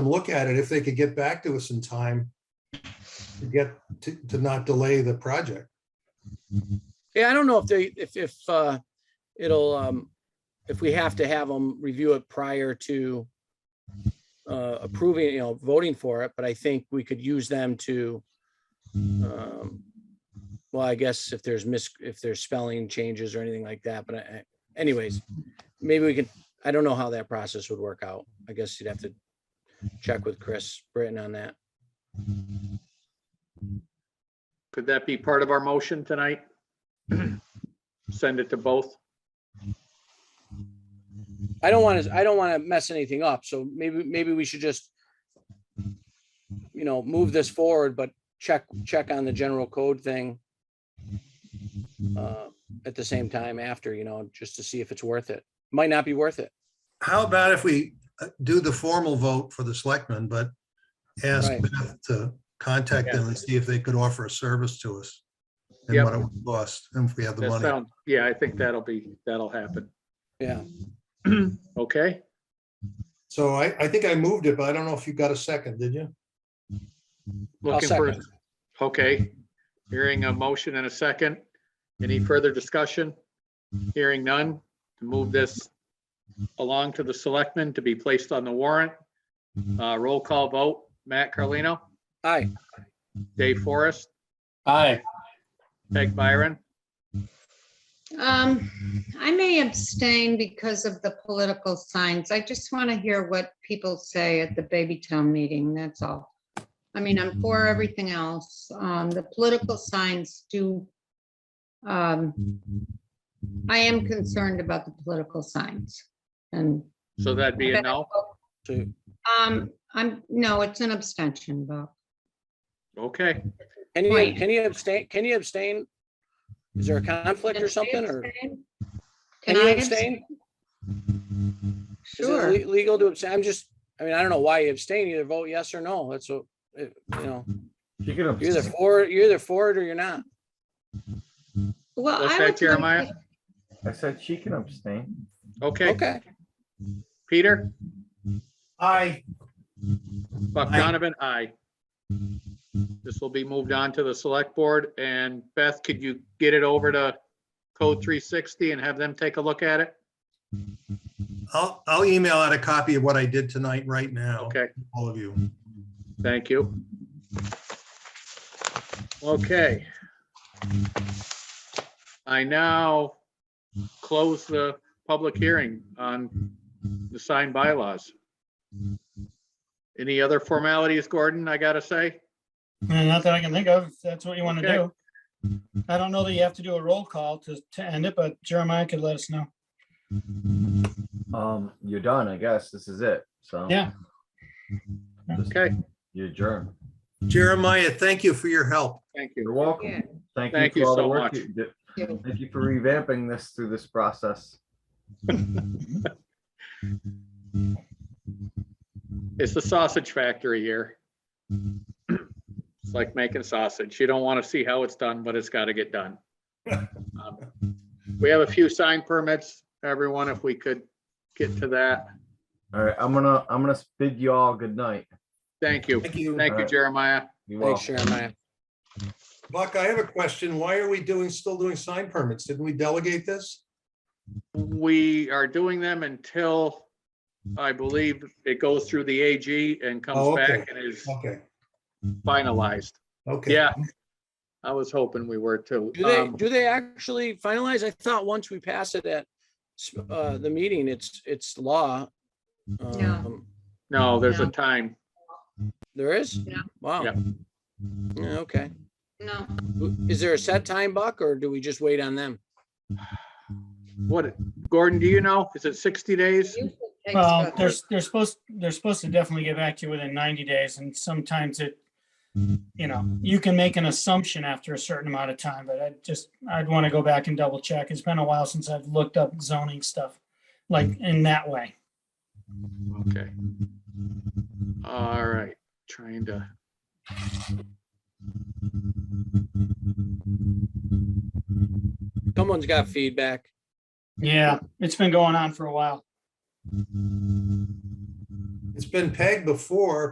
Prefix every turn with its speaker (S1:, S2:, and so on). S1: and look at it if they could get back to us in time to get, to, to not delay the project.
S2: Yeah, I don't know if they, if, if, uh, it'll, um, if we have to have them review it prior to uh, approving, you know, voting for it, but I think we could use them to, um, well, I guess if there's mis, if there's spelling changes or anything like that, but I- I- anyways, maybe we could, I don't know how that process would work out. I guess you'd have to check with Chris Britton on that.
S3: Could that be part of our motion tonight? Send it to both?
S2: I don't want to, I don't want to mess anything up, so maybe, maybe we should just, you know, move this forward, but check, check on the general code thing uh, at the same time after, you know, just to see if it's worth it. Might not be worth it.
S1: How about if we uh, do the formal vote for the selectmen, but ask
S2: Right.
S1: Beth to contact them and see if they could offer a service to us? And
S3: Yep.
S1: what it would cost, and if we have the
S3: That
S1: money.
S3: sound, yeah, I think that'll be, that'll happen.
S2: Yeah.
S3: Okay,
S1: So I, I think I moved it, but I don't know if you got a second, did you?
S3: looking for, okay. Hearing a motion and a second. Any further discussion? Hearing none, to move this along to the selectmen to be placed on the warrant. Uh, roll call vote, Matt Carlino,
S2: Aye.
S3: Dave Forrest. Aye. Peg Byron,
S4: Um, I may abstain because of the political signs. I just want to hear what people say at the baby town meeting, that's all. I mean, I'm for everything else. Um, the political signs do. Um, I am concerned about the political signs and,
S3: so that'd be a no?
S2: So,
S4: um, I'm, no, it's an abstention, Bob.
S3: Okay,
S2: can you,
S4: Right.
S2: can you abstain, can you abstain? Is there a conflict or something, or
S4: Can
S2: can you
S4: I
S2: abstain? Is it
S4: Sure.
S2: le- legal to abstain? I'm just, I mean, I don't know why you abstain, either vote yes or no, that's what, uh, you know,
S5: You can
S2: you're either for, you're either for it or you're not.
S4: Well,
S3: What's
S4: I
S3: that,
S4: would.
S3: Jeremiah?
S4: like to-
S5: I said she can abstain.
S3: okay.
S2: Okay.
S3: Peter,
S1: Aye.
S3: Buck
S1: Aye.
S3: Donovan, aye. This will be moved on to the select board and Beth, could you get it over to Code three sixty and have them take a look at it?
S1: I'll, I'll email out a copy of what I did tonight, right now.
S3: Okay,
S1: All of you.
S3: thank you. Okay. I now close the public hearing on the signed bylaws. Any other formalities, Gordon, I gotta say?
S6: Uh, Not that I can think of, if that's what you want to
S3: Okay.
S6: do. I don't know that you have to do a roll call to, to end it, but Jeremiah could let us know.
S5: Um, you're done, I guess. This is it. So.
S6: Yeah.
S5: Just-
S3: Okay,
S5: You adjourn.
S1: Jeremiah, thank you for your help.
S3: thank
S5: You're
S3: you.
S4: Yeah.
S5: welcome.
S3: Thank
S5: Thank
S3: you
S5: you for all the
S3: so
S5: work
S3: much.
S5: you did.
S4: Yeah.
S5: Thank you for revamping this through this process.
S3: It's the sausage factory here. It's like making sausage. You don't want to see how it's done, but it's got to get done. Um, We have a few sign permits, everyone, if we could get to that.
S5: All right, I'm gonna, I'm gonna bid you all good night.
S3: Thank you.
S1: Thank you.
S3: Thank you, Jeremiah.
S5: Be well.
S2: Thanks, Jeremiah.
S1: Buck, I have a question. Why are we doing, still doing sign permits? Didn't we delegate this?
S3: We are doing them until I believe it goes through the AG and
S1: Oh,
S3: comes
S1: okay.
S3: back and is
S1: Okay,
S3: finalized.
S1: okay.
S3: Yeah. I was hoping we were too.
S2: Do they,
S3: Um,
S2: do they actually finalize? I thought once we pass it at s- uh, the meeting, it's, it's law. Um,
S3: No, there's a
S4: No.
S3: time.
S2: There is?
S4: Yeah.
S2: Wow.
S3: Yeah.
S2: Yeah, Okay.
S4: No,
S2: Is there a set time, Buck, or do we just wait on them?
S3: What, Gordon, do you know? Is it 60 days?
S4: usually takes
S6: Well,
S4: about-
S6: they're, they're supposed, they're supposed to definitely get back to you within ninety days and sometimes it, you know, you can make an assumption after a certain amount of time, but I just, I'd want to go back and double check. It's been a while since I've looked up zoning stuff like in that way.
S3: Okay. All right, trying to.
S2: Someone's got feedback.
S6: Yeah, it's been going on for a while.
S1: It's been pegged before,